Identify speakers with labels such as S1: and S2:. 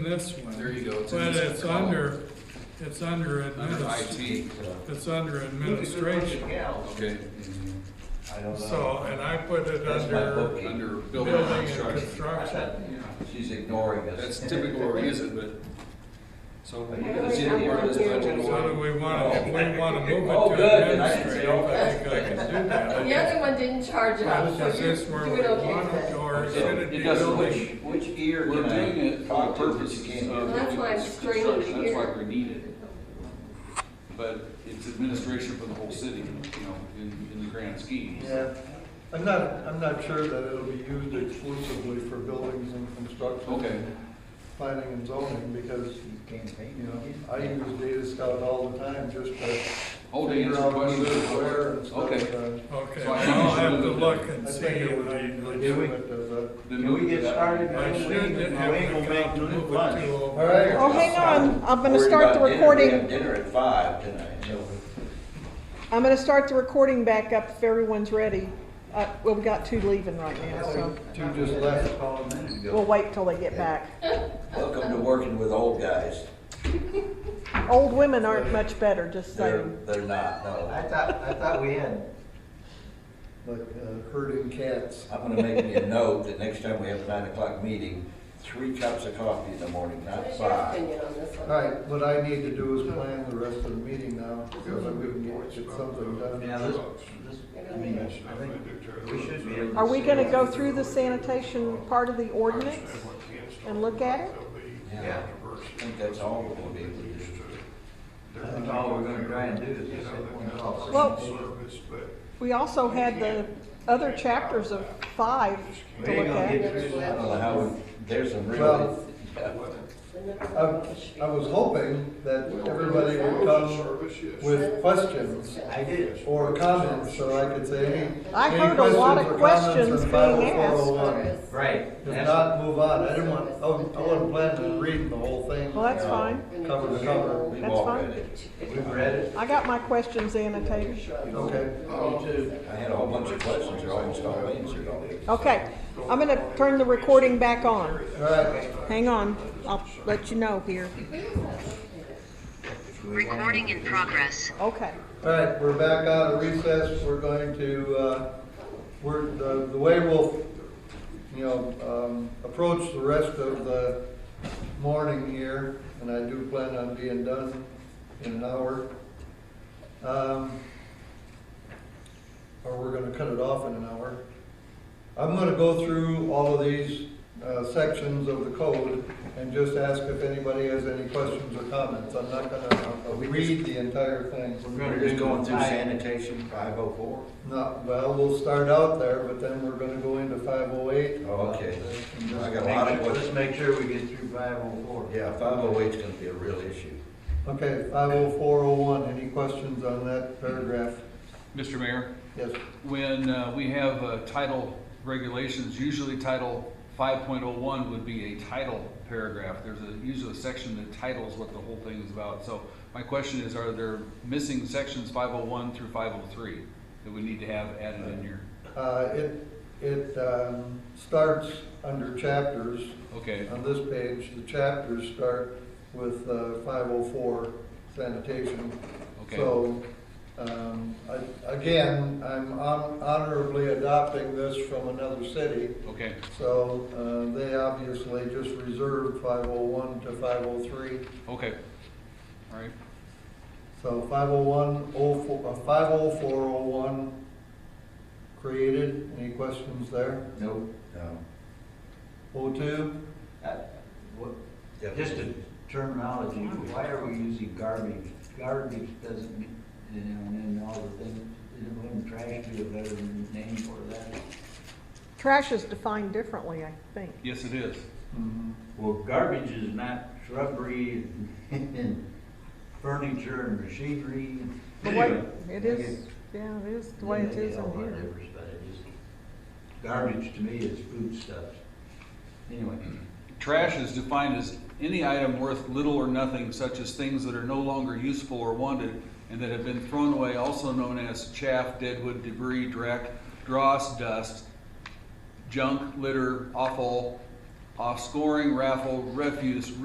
S1: This
S2: There
S1: one,
S2: you go. It's in
S1: but
S2: this
S1: it's
S2: column.
S1: under, it's under
S2: Under
S1: adminis,
S2: IT,
S1: it's under administration.
S2: okay,
S3: I don't know.
S1: So, and I put it
S3: That's my
S1: under
S3: bookkeeper.
S2: under building
S1: building
S2: and
S1: and
S2: construction.
S1: construction.
S3: She's ignoring us.
S2: That's typically where we use it, but, so it's
S4: really
S2: either part of this
S4: haven't
S2: budget
S1: So do
S2: or.
S1: we want to, we want to move
S3: Oh,
S1: it
S3: good,
S1: to
S3: then I can say,
S1: administrative, I think I can do
S4: The
S1: that.
S4: other one didn't charge it up, so
S1: Is
S4: you're
S1: this where we
S4: doing
S1: want it,
S4: okay
S1: or
S3: So,
S1: should it be
S3: It doesn't,
S1: building?
S3: which, which ear
S2: We're
S3: can
S2: doing
S3: I
S2: it for
S3: talk to that you
S2: purposes
S3: can't
S2: of.
S3: hear?
S4: That's why I'm straining
S2: construction. That's why
S4: here.
S2: we need it. But it's administration for the whole city, you know, in, in the grand scheme.
S5: Yeah, I'm not, I'm not sure that it'll be used exclusively for buildings and construction.
S2: Okay.
S5: Planning and zoning, because, you know, I use Data Scout all the time just to
S2: Oh, to
S5: figure
S2: answer
S5: out who's
S2: questions.
S5: where and stuff.
S2: Okay.
S5: Uh,
S1: Okay,
S2: So I think we
S1: I'll
S2: should
S1: have to
S2: move it.
S1: look
S5: I
S1: and see.
S5: think it would be
S1: I-
S5: legitimate as a.
S2: Then
S3: Can
S2: move
S3: we
S2: to
S3: get
S2: that.
S3: started?
S1: I should have to come to move it to
S5: All right.
S6: Oh, hang on, I'm gonna start the recording,
S3: Dinner at five tonight, so
S6: I'm gonna start the recording back up if everyone's ready. Uh, well, we got two leaving right now, so
S5: Two just left.
S6: we'll wait till they get back.
S3: welcome to working with old guys.
S6: Old women aren't much better, just
S3: They're,
S6: saying.
S3: they're not,
S7: I
S3: no.
S7: thought, I thought we had,
S5: Like uh, herding cats.
S3: I'm gonna make me a note that next time we have a nine o'clock meeting, three cups of coffee in the morning,
S4: What
S3: not
S4: is your
S3: five.
S4: opinion on this
S5: All
S4: one?
S5: right, what I need to do is plan the rest of the meeting now, so that we can get get something done.
S7: yeah, this, this, I mean, I think we should be able to.
S6: Are we
S7: see-
S6: gonna go through the sanitation part of the ordinance and look at it?
S7: Yeah,
S3: I think that's all we're gonna be able to do.
S7: I think all we're gonna try and do is just hit one call.
S6: Well- We also had the other chapters of five
S7: We
S6: to
S7: ain't
S6: look
S7: gonna
S6: at.
S7: get through
S3: I don't know
S7: that.
S3: how, we- there's some
S5: Well-
S3: real, yeah.
S5: I I was hoping that everybody would come with questions
S7: I did.
S5: or comments, so I could say, hey.
S6: I
S5: any
S6: heard a lot of
S5: questions or
S6: questions
S5: comments
S6: being
S5: on Bible
S6: asked.
S5: 401?
S7: Right.
S5: If
S7: That's-
S5: not, move on. I didn't want, I wasn't- I wasn't planning on reading the whole thing.
S6: Well, that's fine.
S5: Cover to cover.
S3: We've
S6: That's
S3: all
S6: fine.
S3: read it.
S7: We've read it.
S6: I got my questions annotated.
S5: Okay.
S7: Oh,
S3: I had a whole bunch of questions, they're almost all answered already.
S6: Okay, I'm gonna turn the recording back on.
S5: All right.
S6: Hang on, I'll let you know here.
S8: Recording in progress.
S6: Okay.
S5: All right, we're back out of recess. We're going to, uh, we're, the, the way we'll, you know, um, approach the rest of the morning here, and I do plan on being done in an hour. Um, or we're gonna cut it off in an hour. I'm gonna go through all of these, uh, sections of the code and just ask if anybody has any questions or comments. I'm not gonna read the entire thing.
S3: Uh, We're just going through sanitation, five oh four?
S5: No, well, we'll start out there, but then we're gonna go into five oh eight.
S3: Oh, okay. I got a
S7: Make
S3: lot of
S7: sure- Let's
S3: questions.
S7: make sure we get through five oh four.
S3: Yeah, five oh eight's gonna be a real issue.
S5: Okay, five oh four oh one, any questions on that paragraph?
S2: Mr. Mayor?
S5: Yes,
S2: When uh, we have uh, title regulations, usually title 5.01 would be a title paragraph. There's a, usually a section that titles what the whole thing is about. So my question is, are there missing sections 501 through 503 that we need to have added in here?
S5: uh, it, it, um, starts under chapters.
S2: Okay,
S5: On this page, the chapters start with, uh, five oh four sanitation.
S2: okay.
S5: So, um, I- again, I'm hon- honorably adopting this from another city.
S2: Okay,
S5: So uh, they obviously just reserved 501 to 503.
S2: okay. All right,
S5: So 501, 04 uh, 50401 created. Any questions there?
S3: No. No.
S5: 02,
S7: Uh, what-
S3: Yeah.
S7: Just a terminology, why are we using garbage? Garbage doesn't, mean- you know, and then all the things, you know, wouldn't trash be a better name for that?
S6: Trash is defined differently, I think.
S2: yes, it is.
S5: Mm-hmm.
S7: Well, garbage is not shrubbery and furniture and machinery.
S6: The way, it is, yeah, it is the way it is in here.
S7: But it is, garbage to me is foodstuffs. Anyway,
S2: Trash is defined as any item worth little or nothing, such as things that are no longer useful or wanted and that have been thrown away, also known as chaff, deadwood, debris, dreck, dross, dust, junk, litter, offal, offscoring, raffle, refuse,